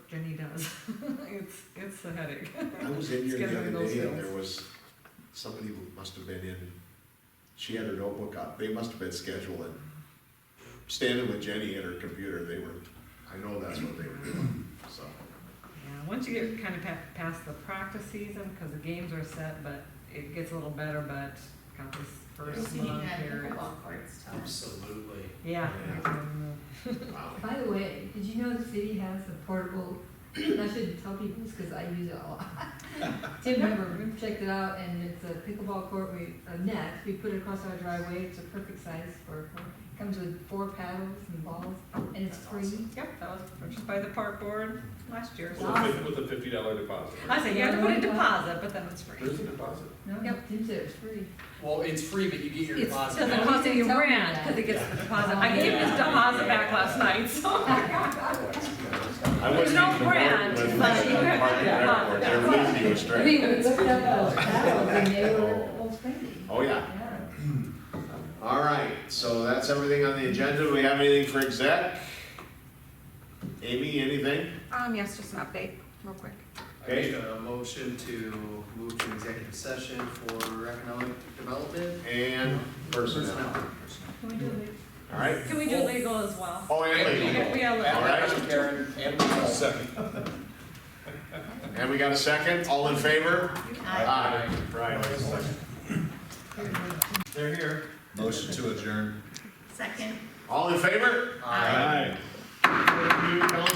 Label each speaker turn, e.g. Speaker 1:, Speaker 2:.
Speaker 1: really does. It's, it's a headache.
Speaker 2: I was in here the
Speaker 1: Scattering
Speaker 2: other
Speaker 1: those
Speaker 2: day and
Speaker 1: fields.
Speaker 2: there was, somebody must have been in, she had her notebook up, they must have been scheduling. Standing with Jenny at her computer, they were, I know that's what they were doing, so.
Speaker 1: Yeah, once you get kind of pa- past the practice season, because the games are set, but it gets a little better, but got this first
Speaker 3: Looking
Speaker 1: month
Speaker 3: at
Speaker 1: here.
Speaker 3: pickleball courts, tell us.
Speaker 4: Absolutely.
Speaker 1: Yeah.
Speaker 2: wow.
Speaker 5: By the way, did you know the city has a portable, I should tell people this because I use it a lot. Tim Weber checked it out and it's a pickleball court, we, a net, we put it across our driveway, it's a perfect size for, for- comes with four paddles and balls and it's
Speaker 4: That's
Speaker 5: free.
Speaker 4: awesome.
Speaker 1: Yep, that was purchased by the park board last year.
Speaker 6: With a fif- with a fifty dollar deposit.
Speaker 1: I say you have to put a deposit, but then it's free.
Speaker 6: There's a deposit.
Speaker 5: No,
Speaker 1: Yep.
Speaker 5: Tim said it's free.
Speaker 4: Well, it's free, but you get your
Speaker 1: It
Speaker 4: deposit.
Speaker 1: doesn't
Speaker 5: back.
Speaker 1: cost any
Speaker 5: You didn't tell me
Speaker 1: rent,
Speaker 5: that.
Speaker 1: because it gets the deposit. I
Speaker 5: Yeah.
Speaker 1: gave his deposit back last night, so. There's no brand, but you have to have
Speaker 2: They're losing you a
Speaker 5: I
Speaker 2: straight.
Speaker 5: mean, we looked up those paddles and they were old spandy.
Speaker 2: Oh, yeah.
Speaker 5: Yeah.
Speaker 2: All right, so that's everything on the agenda. Do we have anything for exec? Amy, anything?
Speaker 1: Um, yes, just an update, real quick.
Speaker 3: I make a motion to move to executive session for economic development.
Speaker 2: And personnel.
Speaker 3: Personnel.
Speaker 5: Can we do it?
Speaker 2: All right.
Speaker 1: Can we do legal as well?
Speaker 2: Oh, and legal.
Speaker 1: Yeah, we all-
Speaker 2: All right.
Speaker 4: Karen, and myself.
Speaker 2: And we got a second? All in favor?
Speaker 3: Aye.
Speaker 2: Right.
Speaker 5: Here, here.
Speaker 2: They're here.
Speaker 7: Motion to adjourn.
Speaker 3: Second.
Speaker 2: All in favor?
Speaker 3: Aye.
Speaker 2: Thank you, Council.